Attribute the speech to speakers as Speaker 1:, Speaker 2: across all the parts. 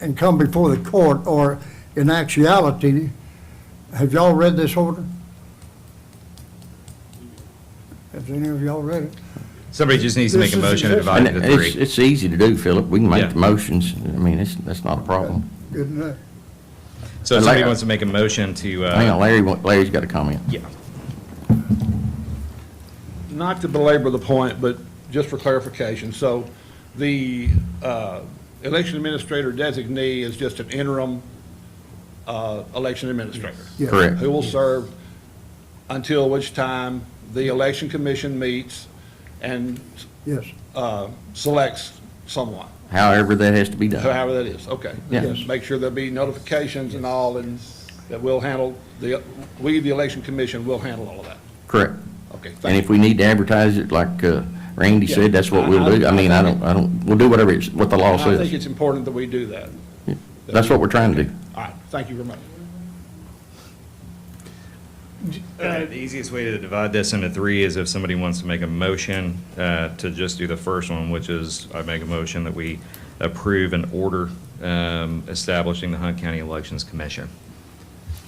Speaker 1: and come before the court, or in actuality, have y'all read this order? Has any of y'all read it?
Speaker 2: Somebody just needs to make a
Speaker 1: This is-
Speaker 2: motion to divide
Speaker 3: And
Speaker 2: it into
Speaker 3: it's,
Speaker 2: three.
Speaker 3: it's easy to do, Philip. We can
Speaker 2: Yeah.
Speaker 3: make the motions. I mean, it's, that's not a problem.
Speaker 1: Good enough.
Speaker 2: So if somebody wants to make a motion to,
Speaker 3: Hang on,
Speaker 2: uh,
Speaker 3: Larry, wa- Larry's got a comment.
Speaker 2: yeah.
Speaker 4: not to belabor the point, but just for clarification, so the uh, election administrator designee is just an interim uh, election administrator.
Speaker 1: Yes.
Speaker 3: Correct.
Speaker 4: Who will serve until which time the election commission meets and
Speaker 1: Yes,
Speaker 4: uh, selects someone,
Speaker 3: However, that has to be done.
Speaker 4: however that is, okay.
Speaker 3: Yeah.
Speaker 1: Yes.
Speaker 4: Make sure there'll be notifications and all, and that we'll handle, the we, the election commission, will handle all of that.
Speaker 3: Correct.
Speaker 4: Okay, thank you.
Speaker 3: And if we need to advertise it, like uh, Randy
Speaker 4: Yeah.
Speaker 3: said, that's what we'll do. I mean, I don't, I don't, we'll do whatever it's, what the law
Speaker 4: I think
Speaker 3: says.
Speaker 4: it's important that we do that.
Speaker 3: That's what we're trying to do.
Speaker 4: All right, thank you very much.
Speaker 2: Uh, The easiest way to divide this into three is if somebody wants to make a motion uh, to just do the first one, which is I make a motion that we approve an order um, establishing the Hunt County Elections Commission.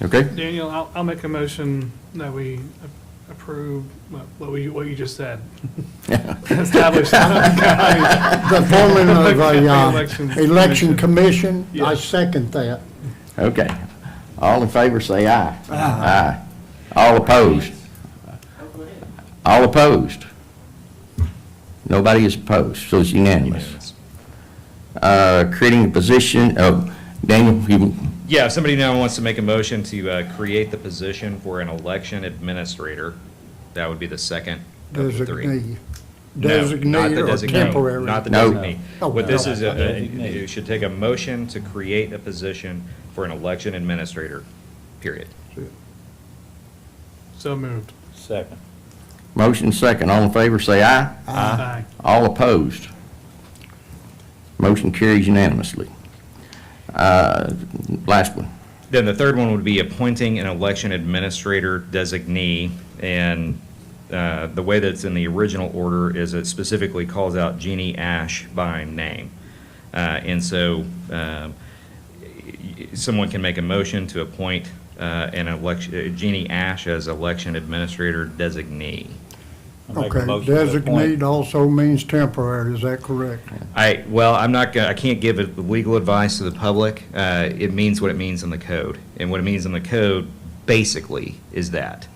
Speaker 3: Okay?
Speaker 5: Daniel, I'll, I'll make a motion that we a- approve what what we, what you just said. Establish the Hunt County-
Speaker 1: the forming of a
Speaker 5: Election
Speaker 1: uh, election
Speaker 5: Commission.
Speaker 1: commission, I
Speaker 5: Yes.
Speaker 1: second that.
Speaker 3: Okay. All in favor, say aye. Aye. All opposed? All opposed? Nobody is opposed, so it's unanimous. Uh, Creating a position of, Daniel, you,
Speaker 2: Yeah, if somebody now wants to make a motion to uh, create the position for an election administrator, that would be the second of the three.
Speaker 1: Designee.
Speaker 2: No, not the
Speaker 1: Designee or
Speaker 2: designee,
Speaker 1: temporary.
Speaker 2: Not the
Speaker 3: No.
Speaker 2: designee.
Speaker 1: No.
Speaker 2: What this is,
Speaker 1: No.
Speaker 2: uh, you should take a motion to create a position for an election administrator, period.
Speaker 5: So moved.
Speaker 6: Second.
Speaker 3: motion second, all in favor, say aye.
Speaker 5: Aye.
Speaker 3: All opposed? Motion carries unanimously. Uh, Last one.
Speaker 2: Then the third one would be appointing an election administrator designee. And uh, the way that's in the original order is it specifically calls out Jeannie Ash by name. Uh, And so um, y- someone can make a motion to appoint uh, an election, Jeannie Ash as election administrator designee.
Speaker 6: I make a
Speaker 1: Okay,
Speaker 6: motion to
Speaker 1: designate
Speaker 6: appoint-
Speaker 1: also means temporary, is that correct?
Speaker 2: I, well, I'm not gonna, I can't give it- legal advice to the public. Uh, It means what it means in the code. And what it means in the code, basically, is that.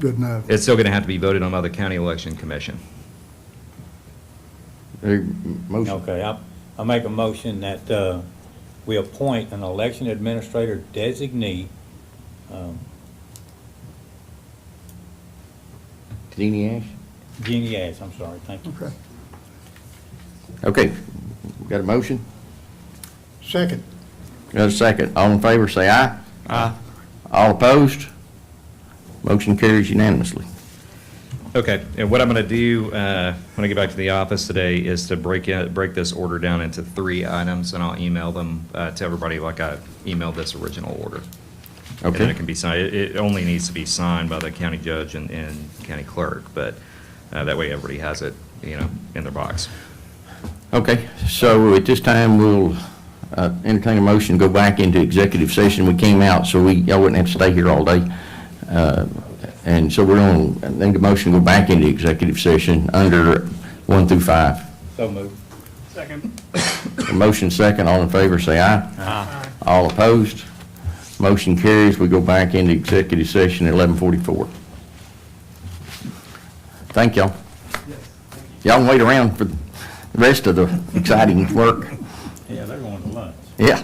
Speaker 1: Good enough.
Speaker 2: It's still going to have to be voted on by the county election commission.
Speaker 3: Uh, Motion.
Speaker 6: Okay, I, I make a motion that, uh, we appoint an election administrator designee, um,
Speaker 3: Deenie Ash?
Speaker 6: Jeannie Ash, I'm sorry, thank you.
Speaker 1: Okay.
Speaker 3: Okay, got a motion?
Speaker 1: Second,
Speaker 3: Got a second. All in favor, say aye. Aye. All opposed? Motion carries unanimously.
Speaker 2: Okay, and what I'm going to do uh, when I get back to the office today is to break it, break this order down into three items, and I'll email them uh, to everybody like I emailed this original order. And then
Speaker 3: Okay.
Speaker 2: it can be signed, it it only needs to be signed by the county judge and, and county clerk, but uh, that way everybody has it, you know, in their box.
Speaker 3: Okay, so at this time, we'll uh, entertain a motion, to go back into executive session. We came out, so we, y'all wouldn't have to stay here all day. Uh, And so we're on, I think a motion, to go back into executive session under one through five.
Speaker 6: So moved.
Speaker 5: Second.
Speaker 3: A Motion second, all in favor, say aye. Aye. All opposed? Motion carries, we go back into executive session at 11:44. Thank y'all. Y'all can wait around for the rest of the exciting work.
Speaker 6: Yeah, they're going to lunch.
Speaker 3: Yeah.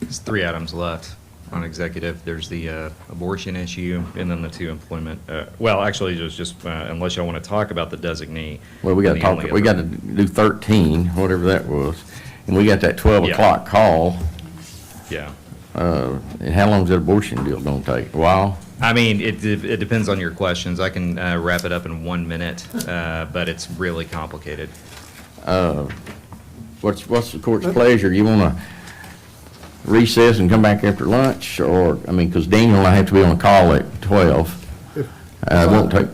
Speaker 2: There's three items left on executive. There's the uh, abortion issue, and then the two employment, uh, well, actually, there's just, uh, unless y'all want to talk about the designee.
Speaker 3: Well, we got to
Speaker 2: then the
Speaker 3: talk,
Speaker 2: only
Speaker 3: we got
Speaker 2: other-
Speaker 3: to do 13, whatever that was. And we got that 12
Speaker 2: Yeah.
Speaker 3: o'clock call.
Speaker 2: Yeah.
Speaker 3: Uh, And how long's that abortion deal going to take? A while?
Speaker 2: I mean, it, de- it depends on your questions. I can uh, wrap it up in one minute, uh, but it's really complicated.
Speaker 3: What's, what's the court's pleasure? You want to recess and come back after lunch, or, I mean, because Daniel and I have to be on a call at 12. Uh, It won't take,